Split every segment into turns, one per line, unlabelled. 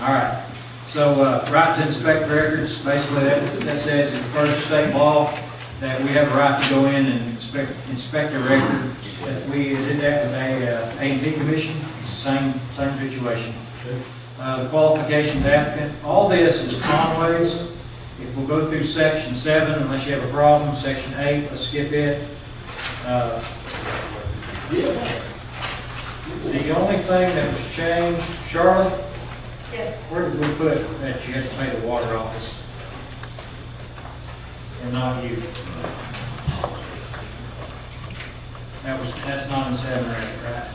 All right, so, uh, right to inspect records, basically that, that says in first state law that we have a right to go in and inspect, inspect a record. That we did that with a, uh, AZ commission, it's the same, same situation. Uh, the qualifications applicant, all this is Conway's. If we'll go through section seven, unless you have a problem, section eight, let's skip it. Uh, The only thing that was changed, Charlotte,
Yes,
where did we put that you had to pay the water office? And not you? That was, that's not in seven or eight, right?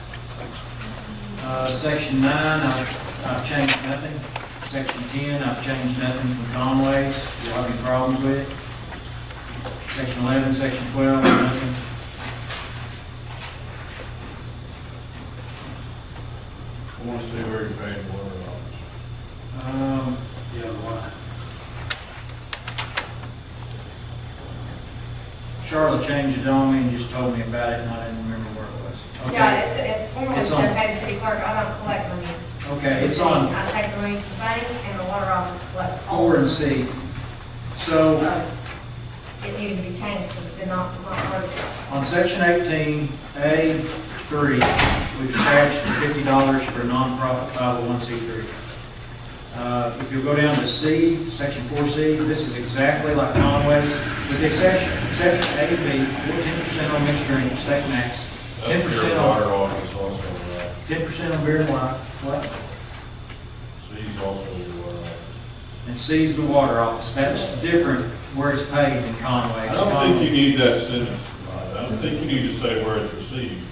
Uh, section nine, I've, I've changed nothing. Section ten, I've changed nothing from Conway's, do you have any problems with it? Section eleven, section twelve, nothing.
I want to see where you're paying water office.
Um,
Yeah, why?
Charlotte changed it on me and just told me about it, and I didn't remember where it was. Okay.
yeah, it's, it formerly
It's
said
on.
pay the city clerk, I don't collect money.
Okay, it's on
I take the money to the bank and the water office collects all.
four and C. So
So it needed to be changed because it did not, not work.
on section eighteen, A three, we've charged fifty dollars for nonprofit five oh one C three. Uh, if you go down to C, section four C, this is exactly like Conway's, with the exception, exception A, B, fourteen percent on mixed drink, state max, ten
That's
percent
your
on,
water office also, uh, right?
ten percent on beer and wine, what?
C's also your uh, water office.
and sees the water office. That's different where it's paid in Conway.
I don't think you need that sentence, Rod. I don't think you need to say where it's received.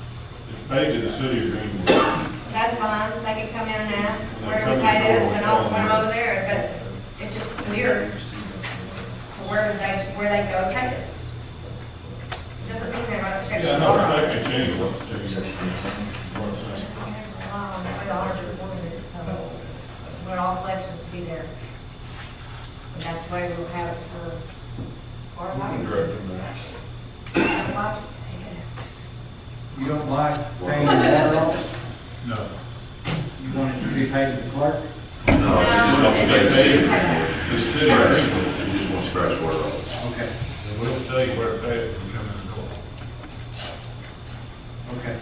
It's paid to the city of Greenwood.
That's fine, they can come in and ask,
And
where
they're
do we pay
coming
this, and I'll,
forward.
when I'm over there, but it's just clear to where they, where they go and pay it. It Doesn't mean they're gonna check.
Yeah,
the
no,
water
I
office.
can change what the city is receiving.
Um, the auditor wanted it, so, but all collections be there. And that's the way we'll have it for our
You can
lives.
direct them there.
Our lives to
You don't like paying the water office?
No.
You want it to be paid to the clerk?
No, she just wants to pay the
take
city.
it. No,
The
She
city of Greenwood,
scratched- she just wants to scratch water off.
Okay,
they will tell you where it paid from coming to court.
okay.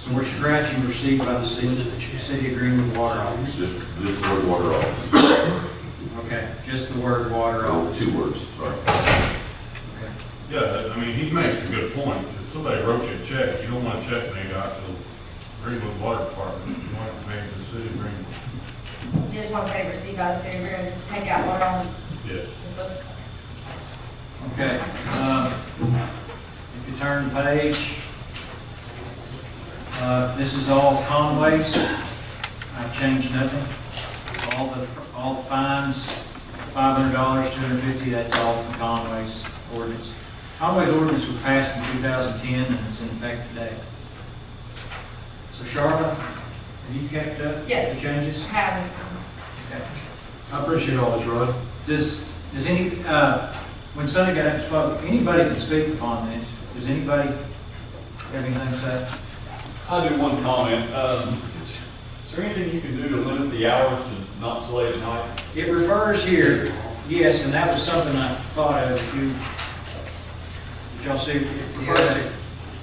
So we're scratching received by the city, city of Greenwood water office.
It's just, just the word water off.
Okay, just the word water
Oh,
office.
two words, sorry.
Okay.
Yeah, I mean, he makes a good point. If somebody wrote you a check, you don't want a check made out to Greenwood Water Department. You want it made to the city of Greenwood.
You just want to say receive by the city, we're gonna just take out water on,
Yes.
just those.
Okay, um, if you turn the page, uh, this is all Conway's. I've changed nothing. All the, all the fines, five hundred dollars, two hundred fifty, that's all from Conway's ordinance. Conway's ordinance was passed in two thousand ten and it's in effect today. So Charlotte, have you kept up?
Yes.
The changes?
Have this time.
Okay.
I appreciate all this, Rod.
Does, does any, uh, when Sonny got up and spoke, anybody can speak upon this? Does anybody have anything to say?
I do one comment. Um, Is there anything you can do to limit the hours to not so late at night?
It refers here, yes, and that was something I thought of, if you, did y'all see, it refers to-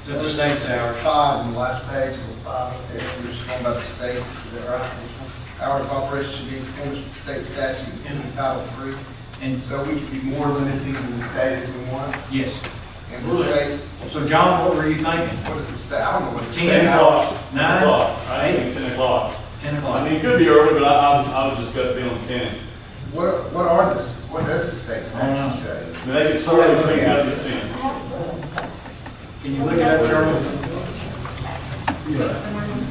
to the state's hours.
Five on the last page, and five up there, we're just talking about the state, is that right? This one, Hours of operation should be in accordance with state statute in Title III.
And,
So we could be more limited than the state if we want.
yes,
And the state,
so John, what were you thinking?
what is the state, I don't know what the state.
Ten
Ten o'clock.
Nine.
Ten o'clock. I think ten o'clock.
Ten
I
o'clock?
mean, it could be early, but I, I was, I was just gonna be on ten.
What, are- what are the, what does the state
I don't
statute say?
I mean, they could certainly bring it up to ten.
Can you look it up, Charlie?
It's the morning.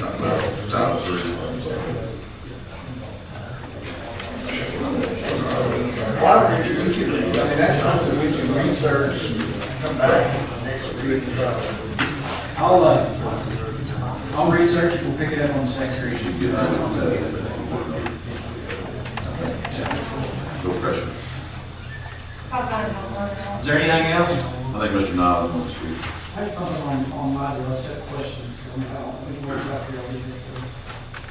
No, Title three, I'm sorry.
Why don't we, we can, I mean, that's something we can research, come back next week. and try to-
I'll, uh, I'll research it, we'll pick it up on the secretary.
No pressure.
Probably not gonna work.
Is there anything else?
I think Mr. Nile wants to speak.
I had something on, on my, I said questions, so we don't, we can work out the ideas.